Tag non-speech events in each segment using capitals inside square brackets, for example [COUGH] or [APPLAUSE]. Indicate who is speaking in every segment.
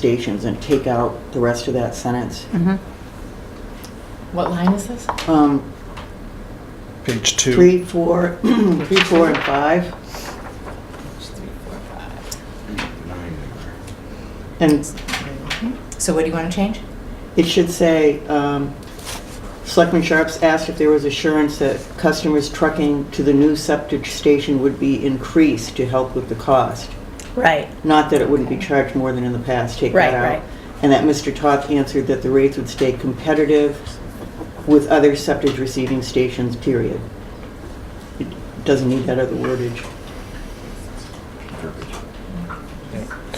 Speaker 1: stations and take out the rest of that sentence.
Speaker 2: Mm-hmm. What line is this?
Speaker 1: Um,
Speaker 3: Page two.
Speaker 1: Three, four, [CLEARS THROAT] three, four, and five,
Speaker 2: Three, four, five.
Speaker 1: and
Speaker 2: So what do you want to change?
Speaker 1: it should say, um, Selectman Sharps asked if there was assurance that customers trucking to the new septic station would be increased to help with the cost.
Speaker 4: Right,
Speaker 1: Not that it wouldn't be charged more than in the past, take that
Speaker 4: Right,
Speaker 1: out.
Speaker 4: right.
Speaker 1: And that Mr. Toth answered that the rates would stay competitive with other septic receiving stations, period. It doesn't need that other wordage.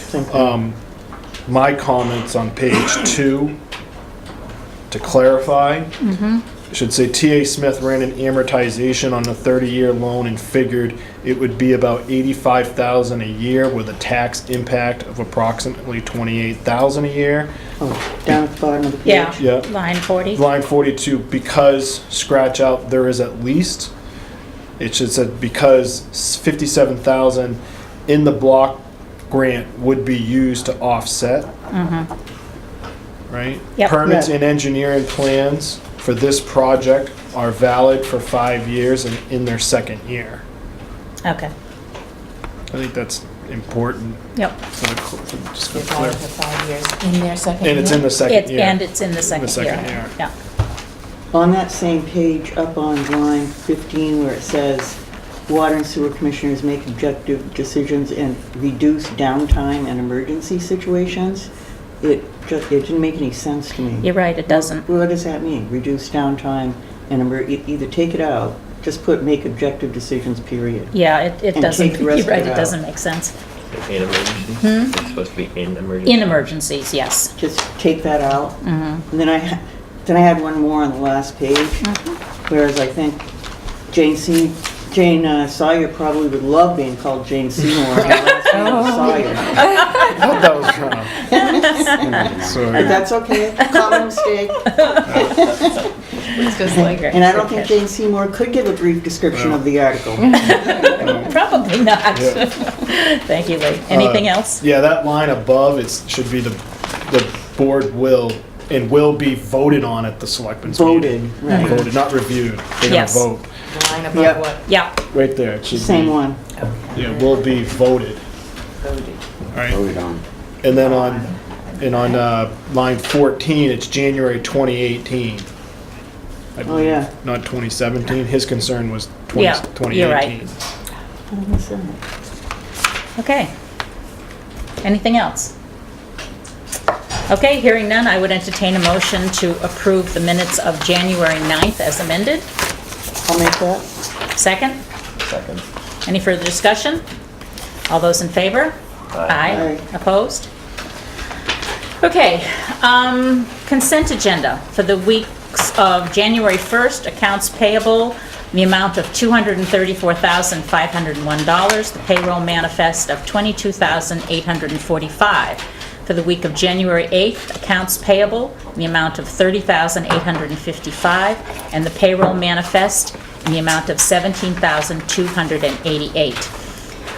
Speaker 1: Thank you.
Speaker 3: Um, my comments on page two, to clarify, should say TA Smith ran an amortization on a 30-year loan and figured it would be about 85,000 a year with a tax impact of approximately 28,000 a year.
Speaker 1: Oh, Down at the bottom of the page.
Speaker 4: yeah.
Speaker 3: Yeah.
Speaker 4: Line 40.
Speaker 3: Line 42, because scratch out there is at least. It should said because s- 57,000 in the block grant would be used to offset. Right?
Speaker 4: Yep.
Speaker 3: Permits
Speaker 1: Yeah.
Speaker 3: and engineering plans for this project are valid for five years and in their second year.
Speaker 4: Okay,
Speaker 3: I think that's important
Speaker 4: yep.
Speaker 3: for the, cl- for just for
Speaker 2: You're going
Speaker 3: clarity.
Speaker 2: for five years in their second year?
Speaker 3: And it's in the second
Speaker 4: It's,
Speaker 3: year.
Speaker 4: and it's in the second year.
Speaker 3: second year.
Speaker 4: Yeah,
Speaker 1: On that same page, up on line 15, where it says, "Water and sewer commissioners make objective decisions and reduce downtime and emergency situations," it just, it didn't make any sense to me.
Speaker 4: you're right, it doesn't.
Speaker 1: What does that mean? Reduce downtime and emer- e- either take it out, just put "make objective decisions," period.
Speaker 4: Yeah, it, it
Speaker 1: And
Speaker 4: doesn't,
Speaker 1: take the rest
Speaker 4: you're
Speaker 1: of
Speaker 4: right,
Speaker 1: it
Speaker 4: it
Speaker 1: out.
Speaker 4: doesn't make sense.
Speaker 5: In emergency? It's supposed to be in emergency?
Speaker 4: In emergencies, yes.
Speaker 1: Just take that out.
Speaker 2: Mm-hmm.
Speaker 1: And then I, ha- then I had one more on the last page, whereas I think Jane Se- Jane uh, Sawyer probably would love being called Jane Seymour. Her last name is Sawyer.
Speaker 3: I thought that was wrong.
Speaker 1: But
Speaker 3: Sorry.
Speaker 1: that's okay, common mistake.
Speaker 2: It's just like,
Speaker 1: And I don't think Jane Seymour could give a brief description of the article.
Speaker 4: Probably not. [LAUGHS]
Speaker 3: Yeah. Uh,
Speaker 4: Thank you, Lee. Anything else?
Speaker 3: Yeah, that line above, it should be the, the board will, and will be voted on at the selectmen's
Speaker 1: Voted,
Speaker 3: meeting.
Speaker 1: right.
Speaker 3: Voted, not reviewed. They're gonna
Speaker 4: Yes.
Speaker 3: vote.
Speaker 2: the line
Speaker 1: Yep.
Speaker 2: above what
Speaker 4: Yeah,
Speaker 3: Right there. it should be-
Speaker 1: Same one.
Speaker 3: Yeah, will be voted.
Speaker 2: voted.
Speaker 3: Alright, and then on, and on, uh, line fourteen, it's January twenty eighteen.
Speaker 1: Oh, yeah.
Speaker 3: Not twenty seventeen, his concern was twenty,
Speaker 4: Yeah,
Speaker 3: twenty
Speaker 4: you're right.
Speaker 3: eighteen.
Speaker 1: How did I miss that?
Speaker 4: okay. Anything else? Okay, hearing none, I would entertain a motion to approve the minutes of January 9th as amended.
Speaker 1: I'll make that.
Speaker 4: Second?
Speaker 5: Second.
Speaker 4: Any further discussion? All those in favor? Aye.
Speaker 1: Aye.
Speaker 4: Opposed? Okay, um, consent agenda for the weeks of January 1st, accounts payable, the amount of $234,501, the payroll manifest of $22,845. For the week of January 8th, accounts payable, the amount of $30,855, and the payroll manifest, in the amount of $17,288.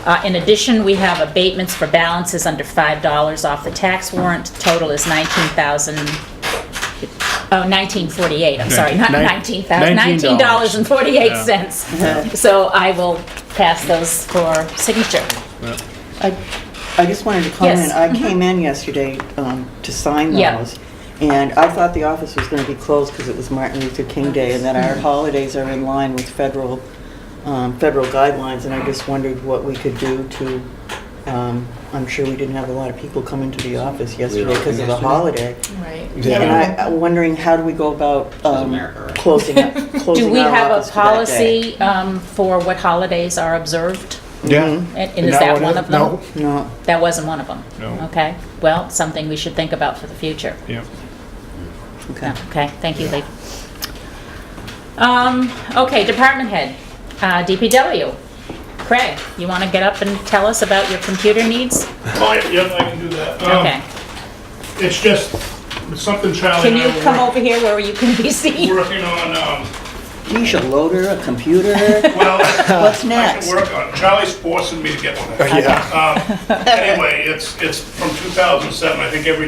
Speaker 4: Uh, In addition, we have abatements for balances under $5 off the tax warrant. Total is 19,000, oh, 1948, I'm sorry, not
Speaker 3: Nin-
Speaker 4: 19,000,
Speaker 3: $19.
Speaker 4: $19.48. So I will pass those for signature.
Speaker 1: I, I just wanted to comment,
Speaker 4: Yes. Mm-hmm.
Speaker 1: I came in yesterday um, to sign
Speaker 4: Yeah.
Speaker 1: those, and I thought the office was going to be closed because it was Martin Luther King Day, and that
Speaker 4: Mm-hmm.
Speaker 1: our holidays are in line with federal, um, federal guidelines, and I just wondered what we could do to, um, I'm sure we didn't have a lot of people come into the office yesterday because of the holiday.
Speaker 2: Right.
Speaker 1: And
Speaker 3: Yeah,
Speaker 1: I- I'm wondering, how do we go about um,
Speaker 6: America, right?
Speaker 1: closing,
Speaker 4: [LAUGHS]
Speaker 1: up-
Speaker 4: Do
Speaker 1: closing
Speaker 4: we
Speaker 1: our
Speaker 4: have
Speaker 1: office
Speaker 4: a
Speaker 1: for that day?
Speaker 4: policy um, for what holidays are observed?
Speaker 3: yeah.
Speaker 4: And and is
Speaker 3: Not
Speaker 4: that
Speaker 3: one
Speaker 4: one
Speaker 3: of-
Speaker 4: of them?
Speaker 3: no.
Speaker 1: No.
Speaker 4: That wasn't one of them?
Speaker 3: No.
Speaker 4: Okay, well, something we should think about for the future.
Speaker 3: Yeah.
Speaker 1: Okay.
Speaker 4: Okay, thank you, Lee. Um, okay, department head, uh, DPW. Craig, you want to get up and tell us about your computer needs?
Speaker 7: Oh, yeah, yep, I can do that. Um,
Speaker 4: Okay.
Speaker 7: It's just, it's something Charlie
Speaker 4: Can
Speaker 7: and I
Speaker 4: you come
Speaker 7: oh, were
Speaker 4: over here where you can be seen?
Speaker 7: working on, um,
Speaker 1: Geez, a loader, a computer,
Speaker 4: [LAUGHS]
Speaker 7: Well, I
Speaker 1: what's
Speaker 7: can
Speaker 1: next?
Speaker 7: work on, it. Charlie's forcing me to get one.
Speaker 3: Yeah.
Speaker 7: Um, Anyway, it's, it's from 2007, I think every